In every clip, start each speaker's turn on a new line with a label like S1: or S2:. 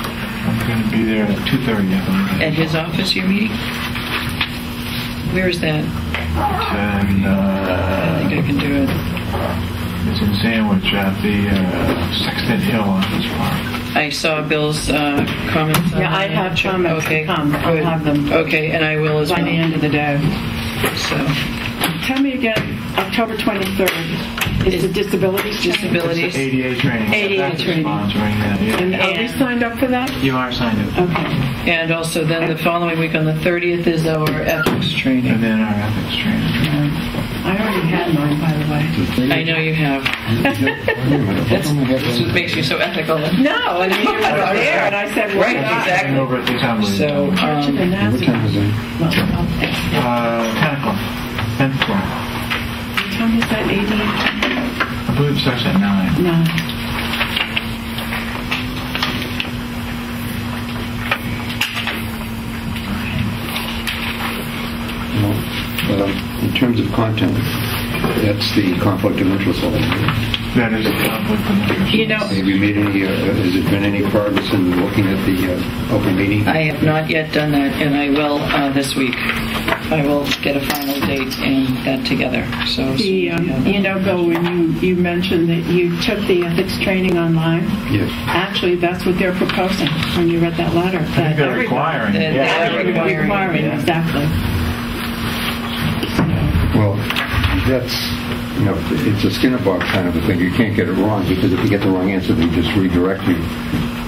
S1: We're going to be there at 2:30, I believe.
S2: At his office, you're meeting? Where is that? uh,
S1: And
S2: I think I
S1: uh,
S2: can do it.
S1: it's in Sandwich at the uh, Sexton Hill Office Park.
S2: I saw Bill's uh, comments. on
S3: Yeah, I
S2: that.
S3: have comments to
S2: Okay,
S3: come. I'll
S2: good.
S3: have them.
S2: Okay, and I will as
S3: by the
S2: well.
S3: end of the day.
S2: So,
S3: Tell me again, October 23rd is the disabilities.
S2: disabilities.
S1: ADA training.
S3: ADA
S1: That's
S3: training.
S1: Sponsoring that,
S3: And
S1: yeah.
S3: are we signed up for that?
S1: You are signed up.
S3: Okay.
S2: And also then the following week on the 30th is our ethics
S1: And
S2: training.
S1: then our ethics training.
S3: I already had mine, by the way.
S2: I know you have.
S4: That's,
S2: This is what makes you so ethical.
S3: No, I mean, you were there, and I said, uh,
S2: Right,
S3: why not?
S2: exactly.
S1: And over at the Assembly.
S2: So,
S3: March of the
S2: um,
S4: What
S3: Nazarene.
S4: time is it?
S3: Well, okay.
S1: Uh, 10 o'clock. 10 o'clock.
S3: Tell me, is that
S1: I believe it starts at 9.
S3: 80? No.
S4: No. But um, in terms of content, that's the conflict of interest law.
S1: That is the conflict of interest.
S3: You know,
S4: Have you made any, uh, has there been any progress in looking at the uh, open meeting?
S2: I have not yet done that, and I will uh, this week. I will get a final date and that together, so. as soon
S3: the,
S2: as we have
S3: um,
S2: that.
S3: you know, Bill, when you, you mentioned that you took the ethics training online,
S4: Yes.
S3: actually, that's what they're proposing when you read that letter.
S1: I think
S3: that
S1: they're
S3: everybody-
S1: requiring.
S2: That-
S1: yeah.
S2: that-
S3: They're
S2: Requiring,
S3: Requiring,
S1: yeah.
S3: exactly.
S4: Well, that's, you know, it's a skin in a box kind of a thing. You can't get it wrong because if you get the wrong answer, they just redirect you,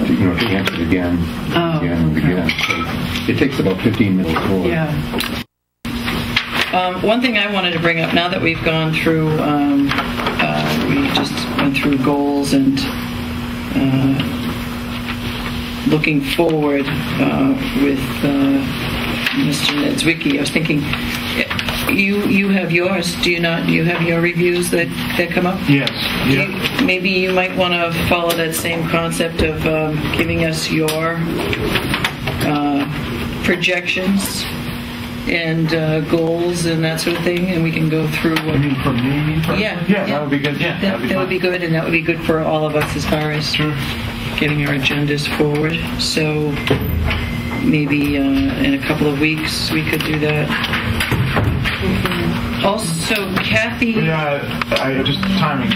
S4: to, you know, to answer it again,
S3: Oh,
S4: again, and again. So It takes about 15 minutes more.
S3: Yeah,
S2: Um, one thing I wanted to bring up now that we've gone through, um, uh, we just went through goals and uh, looking forward uh, with uh, Mr. Nedzwicki. I was thinking, you you have yours, do you not? You have your reviews that, that come up.
S1: Yes. Yeah.
S2: You- Maybe you might want to follow that same concept of um, giving us your uh, projections and uh, goals and that sort of thing, and we can go through.
S1: I
S2: What,
S1: mean, for me? for-
S2: Yeah,
S1: Yeah,
S2: yeah.
S1: that would be good. Yeah.
S2: that, that would be good, and that would be good for all of us as far as
S1: Sure.
S2: getting our agendas forward. So maybe uh, in a couple of weeks we could do that. Also, Kathy.
S1: Yeah, I just timing.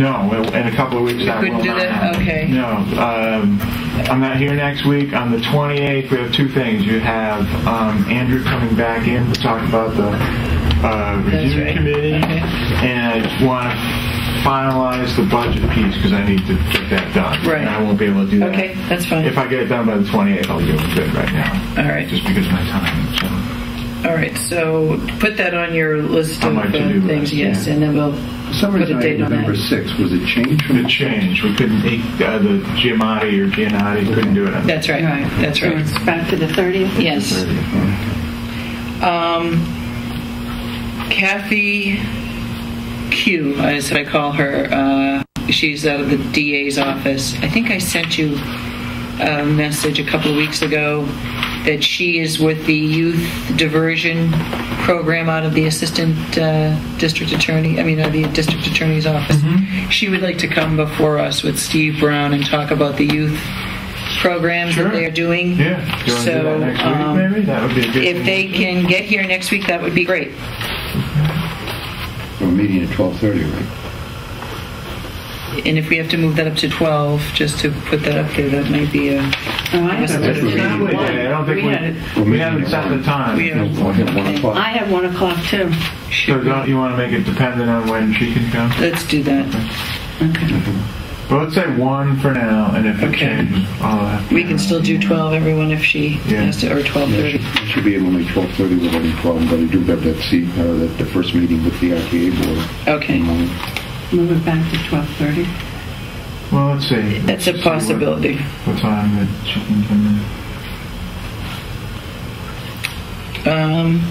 S1: No, in a couple of weeks. I
S2: couldn't
S1: will
S2: do
S1: not
S2: that?
S1: have it.
S2: Okay.
S1: No, um, I'm not here next week. On the 28th, we have two things. You have um, Andrew coming back in to talk about the uh,
S2: That's
S1: review
S2: right.
S1: committee,
S2: Okay.
S1: and I want to finalize the budget piece because I need to get that done.
S2: Right.
S1: And I won't be able to do that.
S2: Okay, that's fine.
S1: If I get it done by the 28th, I'll do it good right now.
S2: All right.
S1: Just because of my time. So.
S2: All right, so put that on your list
S1: On
S2: of
S1: my
S2: uh,
S1: to-do
S2: things,
S1: list,
S2: yes,
S1: yeah.
S2: and then we'll
S4: For some
S2: put
S4: reason,
S2: a
S4: I had
S2: date on
S4: November
S2: that.
S4: 6th was a change from
S1: The change. We couldn't, uh, the Giamatti or Giannotti couldn't do it. on the
S2: That's right,
S3: Right.
S2: that's
S3: so
S2: right.
S3: it's back to the 30th?
S2: Yes.
S1: 30th.
S2: Kathy Q, as I call her, uh, she's out of the DA's office. I think I sent you a message a couple of weeks ago that she is with the youth diversion program out of the assistant uh, district attorney, I mean, uh, the district attorney's office.
S1: Mm-hmm.
S2: She would like to come before us with Steve Brown and talk about the youth programs
S1: Sure.
S2: that they're doing.
S1: Yeah. Do you want to do
S2: So,
S1: that next
S2: um,
S1: week, maybe? That would be a good
S2: If they can get here next week, that would be great.
S4: a meeting at 12:30, right?
S2: And if we have to move that up to 12, just to put that up there, that might be a,
S3: Oh, I have
S4: That's
S3: it.
S4: what we
S3: It's not one.
S4: need.
S1: Yeah, I don't think
S3: We had it.
S1: we, we haven't set the time.
S2: We
S4: No,
S2: have-
S4: one at one o'clock.
S3: I have 1 o'clock, too.
S1: So don't you want to make it dependent on when she can come?
S2: let's do that.
S1: Well, let's say one for now, and if it
S2: Okay.
S1: changes, I'll have to-
S2: We can still do 12, everyone, if she
S1: Yeah.
S2: has to, or
S4: Yeah, She
S2: 12:30.
S4: she should be able to make 12:30 without any problem, but I do have that seat, uh, that the first meeting with the RTA board. Um, in the
S2: Okay,
S4: morning.
S3: Move it back to 12:30.
S1: Well, let's see.
S2: that's a
S1: Let's see what-
S2: possibility.
S1: What time that she can come
S2: Um,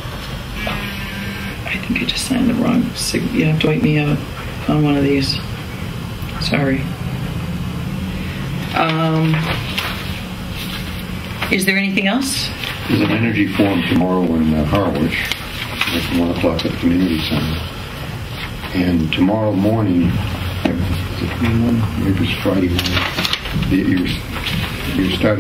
S2: I think I just signed the wrong, sig- you have to wait me out on one of these. Sorry. Um, Is there anything else?
S4: There's an energy forum tomorrow in uh, Harwich at 1 o'clock at the community center. And tomorrow morning, I- is it 21? maybe it's Friday, morning, that you're, you're starting